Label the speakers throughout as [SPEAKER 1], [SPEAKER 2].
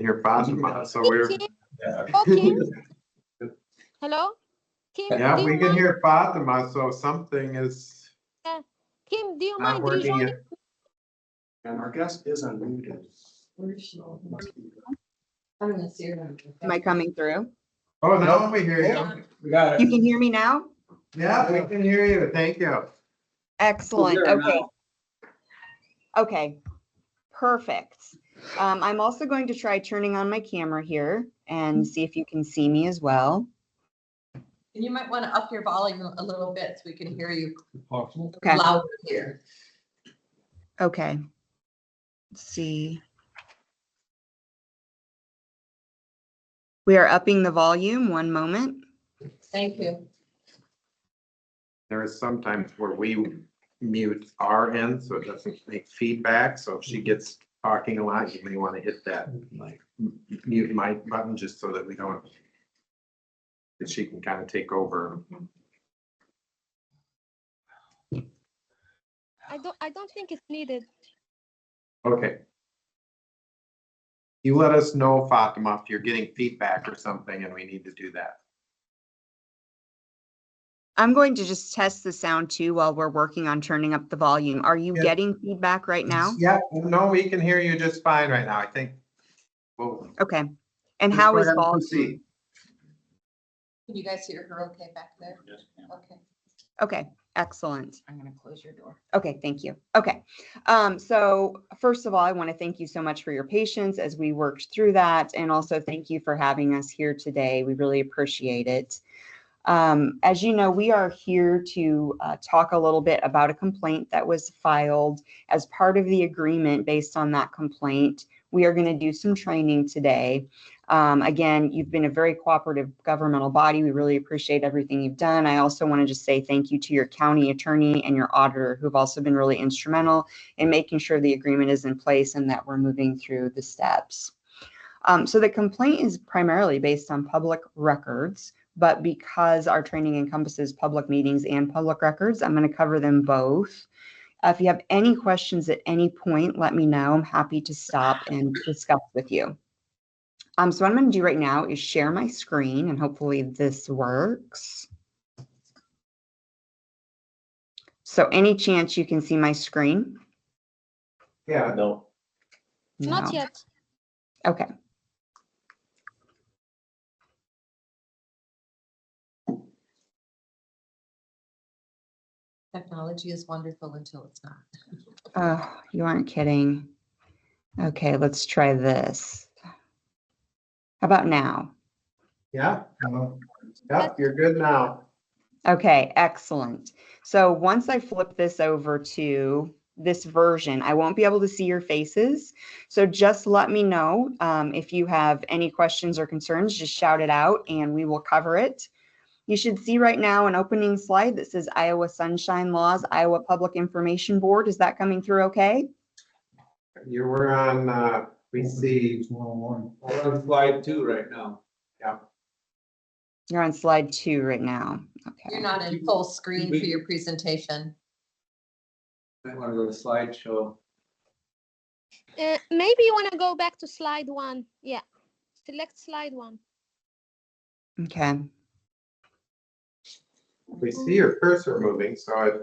[SPEAKER 1] Here, Fatima, so we're,
[SPEAKER 2] Kim,
[SPEAKER 3] Yeah,
[SPEAKER 2] oh, Kim. Hello? Kim,
[SPEAKER 1] yeah,
[SPEAKER 2] do
[SPEAKER 1] we
[SPEAKER 2] you
[SPEAKER 1] can
[SPEAKER 2] mind-
[SPEAKER 1] hear Fatima, so something is
[SPEAKER 2] Kim, do you
[SPEAKER 1] not
[SPEAKER 2] mind
[SPEAKER 1] working.
[SPEAKER 2] rejoining?
[SPEAKER 1] yet.
[SPEAKER 3] And our guest is unmuted. So it must be-
[SPEAKER 4] I'm gonna see her.
[SPEAKER 5] Am I coming through?
[SPEAKER 1] Oh, now we hear you.
[SPEAKER 3] We got
[SPEAKER 5] You
[SPEAKER 3] it.
[SPEAKER 5] can hear me now?
[SPEAKER 1] Yeah, we can hear you. Thank you.
[SPEAKER 5] Excellent,
[SPEAKER 3] there
[SPEAKER 5] okay. Okay, perfect. Um, I'm also going to try turning on my camera here and see if you can see me as well.
[SPEAKER 4] And you might want to up your volume a little bit so we can hear you
[SPEAKER 3] Possible.
[SPEAKER 5] Okay.
[SPEAKER 4] louder here.
[SPEAKER 5] Okay. Let's see. We are upping the volume, one moment.
[SPEAKER 4] Thank you.
[SPEAKER 1] There is sometimes where we mute our end, so it doesn't make feedback, so if she gets talking a lot, you may want to hit that like m- mute mic button just so that we don't that she can kind of take over.
[SPEAKER 2] I don't, I don't think it's needed.
[SPEAKER 1] Okay. You let us know, Fatima, if you're getting feedback or something and we need to do that.
[SPEAKER 5] I'm going to just test the sound too while we're working on turning up the volume. Are you
[SPEAKER 1] Yeah.
[SPEAKER 5] getting feedback right now?
[SPEAKER 1] Yeah, no, we can hear you just fine right now, I think. Well,
[SPEAKER 5] Okay. And
[SPEAKER 1] Just
[SPEAKER 5] how
[SPEAKER 1] go
[SPEAKER 5] is
[SPEAKER 1] ahead and
[SPEAKER 5] volume?
[SPEAKER 1] proceed.
[SPEAKER 4] Can you guys hear her okay back there? Okay.
[SPEAKER 5] Okay, excellent. I'm gonna close your door. Okay, thank you. Okay, um, so first of all, I want to thank you so much for your patience as we worked through that, and also thank you for having us here today. We really appreciate it. Um, as you know, we are here to uh, talk a little bit about a complaint that was filed as part of the agreement based on that complaint. We are going to do some training today. Um, again, you've been a very cooperative governmental body. We really appreciate everything you've done. I also want to just say thank you to your county attorney and your auditor who've also been really instrumental in making sure the agreement is in place and that we're moving through the steps. Um, so the complaint is primarily based on public records, but because our training encompasses public meetings and public records, I'm going to cover them both. Uh, if you have any questions at any point, let me know. I'm happy to stop and discuss with you. Um, so what I'm going to do right now is share my screen and hopefully this works. So any chance you can see my screen?
[SPEAKER 1] yeah,
[SPEAKER 3] No.
[SPEAKER 5] No.
[SPEAKER 2] Not yet.
[SPEAKER 5] Okay.
[SPEAKER 4] Technology is wonderful until it's not.
[SPEAKER 5] Oh, you aren't kidding. Okay, let's try this. How about now?
[SPEAKER 1] yeah. hello. Yep, you're good now.
[SPEAKER 5] Okay, excellent. So once I flip this over to this version, I won't be able to see your faces. So just let me know um, if you have any questions or concerns, just shout it out and we will cover it. You should see right now an opening slide that says Iowa Sunshine Laws, Iowa Public Information Board. Is that coming through okay?
[SPEAKER 1] You were on, uh, we see,
[SPEAKER 3] We're on slide two right now.
[SPEAKER 5] You're on slide two right now. Okay.
[SPEAKER 4] You're not in full screen for your presentation.
[SPEAKER 3] Might want to go to slideshow.
[SPEAKER 2] Uh, maybe you want to go back to slide one. Yeah. Select slide one.
[SPEAKER 5] Okay.
[SPEAKER 1] we see your cursor moving, so it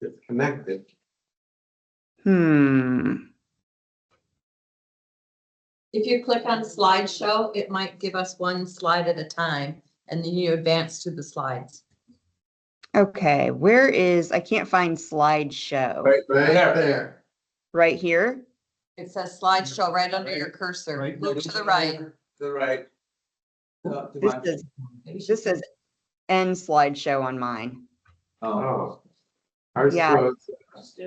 [SPEAKER 1] it's connected.
[SPEAKER 5] Hmm.
[SPEAKER 4] If you click on slideshow, it might give us one slide at a time and then you advance to the slides.
[SPEAKER 5] Okay. Where is, I can't find slideshow.
[SPEAKER 3] Right,
[SPEAKER 1] Right there.
[SPEAKER 5] Right here?
[SPEAKER 4] It says slideshow right under your cursor.
[SPEAKER 3] Right.
[SPEAKER 4] Look to the right.
[SPEAKER 3] To the right. Uh, to
[SPEAKER 5] This
[SPEAKER 3] my-
[SPEAKER 5] is, this says end slideshow on mine.
[SPEAKER 3] Oh,
[SPEAKER 1] Oh. Ours
[SPEAKER 5] Yeah.
[SPEAKER 1] was-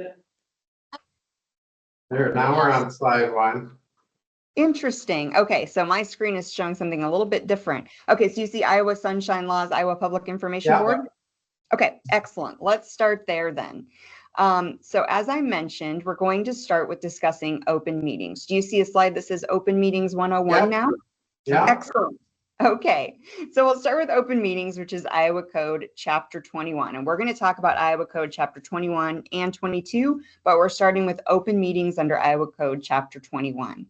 [SPEAKER 1] There, now we're on slide one.
[SPEAKER 5] Interesting. Okay, so my screen is showing something a little bit different. Okay, so you see Iowa Sunshine Laws, Iowa Public Information
[SPEAKER 1] Yeah.
[SPEAKER 5] Board? Okay, excellent. Let's start there then. Um, so as I mentioned, we're going to start with discussing open meetings. Do you see a slide that says Open Meetings 101
[SPEAKER 1] Yeah.
[SPEAKER 5] now?
[SPEAKER 1] Yeah,
[SPEAKER 5] Excellent. Okay, so we'll start with open meetings, which is Iowa Code Chapter 21. And we're going to talk about Iowa Code Chapter 21 and 22, but we're starting with open meetings under Iowa Code Chapter 21.